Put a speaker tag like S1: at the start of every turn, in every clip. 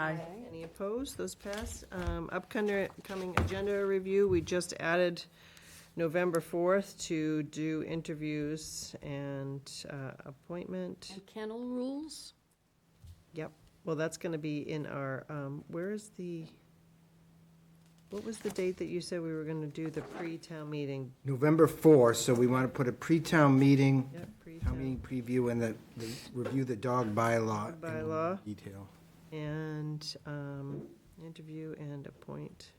S1: Aye. Any opposed? Those pass. Um, Upcoming coming agenda review, we just added November 4th to do interviews and uh, appointment.
S2: And kennel rules?
S1: Yep. Well, that's going to be in our, um, where is the, what was the date that you said we were going to do the pre-town meeting?
S3: November 4th, so we want to put a pre-town meeting,
S1: Yep,
S3: town meeting
S1: pre-town.
S3: preview, and the, the review the dog bylaw. in
S1: Bylaw.
S3: Detail.
S1: And um, interview and appoint.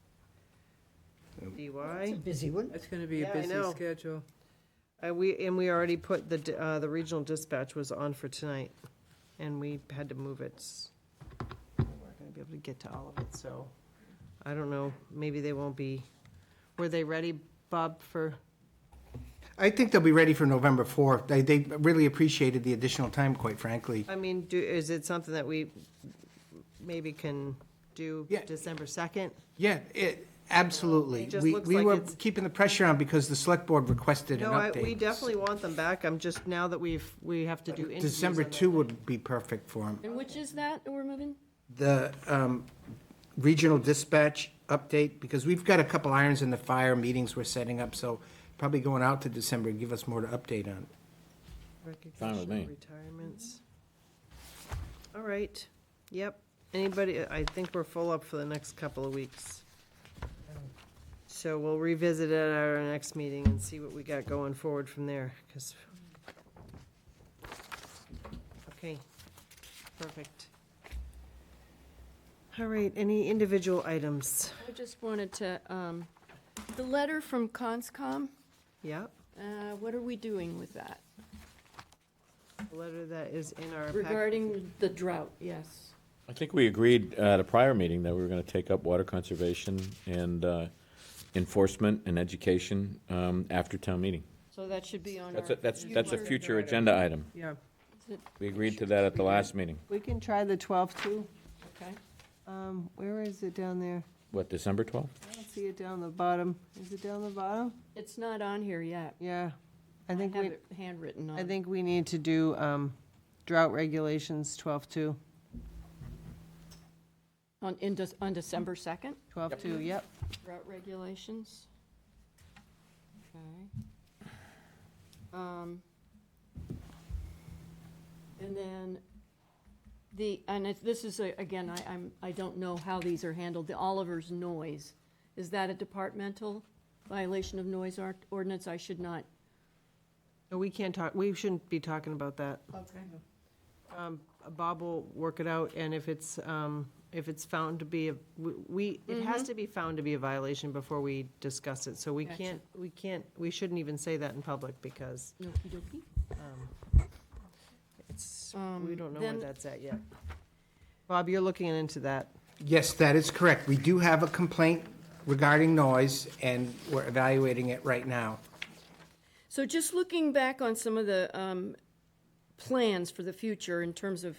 S3: Yep.
S1: DY.
S4: Busy one.
S5: It's gonna be
S1: Yeah,
S5: a
S1: I
S5: busy
S1: know.
S5: schedule.
S1: Uh, we, and we already put the, d- uh, the regional dispatch was on for tonight, and we had to move it. s- We're not gonna be able to get to all of it, so, I don't know, maybe they won't be, were they ready, Bob, for,
S3: I think they'll be ready for November 4th. They, they really appreciated the additional time, quite frankly.
S1: I mean, do, is it something that we maybe can do
S3: Yeah.
S1: December second?
S3: Yeah, it, absolutely.
S1: It just
S3: We,
S1: looks
S3: we
S1: like
S3: were
S1: it's-
S3: keeping the pressure on because the select board requested an
S1: No, I,
S3: update.
S1: we definitely want them back, I'm just, now that we've, we have to do interviews.
S3: December
S1: on that.
S3: 2 would be perfect for them.
S2: And which is that that we're moving?
S3: the um, regional dispatch update, because we've got a couple irons in the fire, meetings we're setting up, so probably going out to December, give us more to update on.
S6: Fine with me.
S1: Recognition, retirements. All right, yep. Anybody, I think we're full up for the next couple of weeks. So we'll revisit it at our next meeting and see what we got going forward from there, because. Okay, perfect. All right, any individual items?
S2: I just wanted to, um, the letter from Conscom,
S1: Yep,
S2: uh, what are we doing with that?
S1: a letter that is in our. pack-
S2: Regarding the drought, yes.
S6: I think we agreed at a prior meeting that we were going to take up water conservation and uh, enforcement and education um, after town meeting.
S2: So that should be on our.
S6: That's, a- that's, that's a
S2: future-
S6: future agenda item.
S1: Yeah,
S6: We agreed to that at the last meeting.
S1: we can try the twelve too.
S2: Okay.
S1: Um, where is it down there?
S6: What, December 12th?
S1: I don't see it down the bottom. Is it down the bottom?
S2: It's not on here yet.
S1: Yeah. I
S2: I
S1: think
S2: have
S1: we,
S2: it handwritten on.
S1: I think we need to do um, drought regulations 12-2.
S2: On, in, Dec- on December second,
S1: 12-2, yep.
S2: drought regulations. Okay. Um, And then the, and it's, this is, a- again, I, I'm, I don't know how these are handled, the Oliver's noise. Is that a departmental violation of noise or- ordinance? I should not.
S1: No, We can't talk, we shouldn't be talking about that.
S2: Okay.
S1: Um, Bob will work it out, and if it's, um, if it's found to be, a we- we, it has to be found to be a violation before we discuss it. So we
S2: Gotcha.
S1: can't, we can't, we shouldn't even say that in public because um,
S2: Okey-dokey.
S1: it's, we
S2: Um,
S1: don't know where
S2: then-
S1: that's at yet. Bob, you're looking into that.
S3: Yes, that is correct. We do have a complaint regarding noise, and we're evaluating it right now.
S2: So just looking back on some of the um, plans for the future in terms of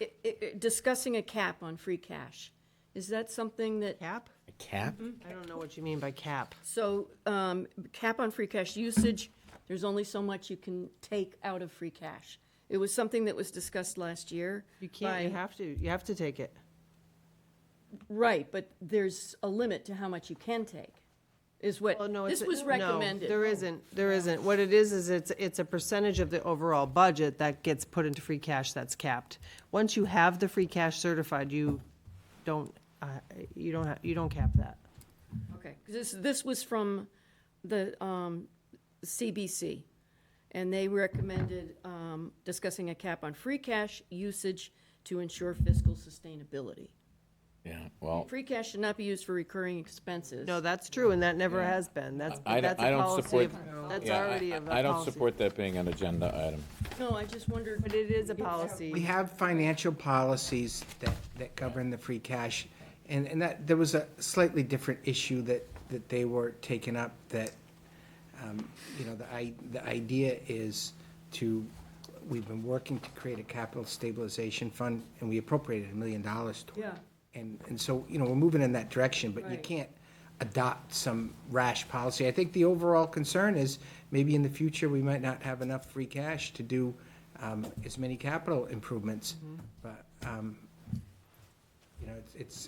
S2: i- i- i- discussing a cap on free cash, is that something that,
S1: Cap?
S6: A cap?
S1: I don't know what you mean by cap.
S2: so um, cap on free cash usage, there's only so much you can take out of free cash. It was something that was discussed last year.
S1: You can't, you
S2: by-
S1: have to, you have to take it.
S2: Right, but there's a limit to how much you can take, is what,
S1: Well, no, it's.
S2: this was
S1: no,
S2: recommended.
S1: There isn't, there isn't. What it is, is it's, it's a percentage of the overall budget that gets put into free cash that's capped. Once you have the free cash certified, you don't, uh, you don't, ha- you don't cap that.
S2: Okay, 'cause this, this was from the um, CBC, and they recommended um, discussing a cap on free cash usage to ensure fiscal sustainability.
S6: Yeah, well,
S2: Free cash should not be used for recurring expenses.
S1: No, that's true, and that never has been. That's,
S6: I- I
S1: that's
S6: don't-
S1: a
S6: I don't
S1: policy,
S6: support-
S1: of- that's
S6: yeah,
S1: already
S6: I-
S1: a
S6: I I don't
S1: policy.
S6: support that being an agenda item.
S2: No, I just wondered.
S1: But it is a
S3: We
S1: policy.
S3: have financial policies that, that govern the free cash, and, and that, there was a slightly different issue that, that they were taking up, that, um, you know, the i, the idea is to, we've been working to create a capital stabilization fund, and we appropriated a million dollars to it.
S2: Yeah.
S3: And, and so, you know, we're moving in that direction, but you
S2: Right.
S3: can't adopt some rash policy. I think the overall concern is, maybe in the future, we might not have enough free cash to do um, as many capital improvements. But um, You know, it's, it's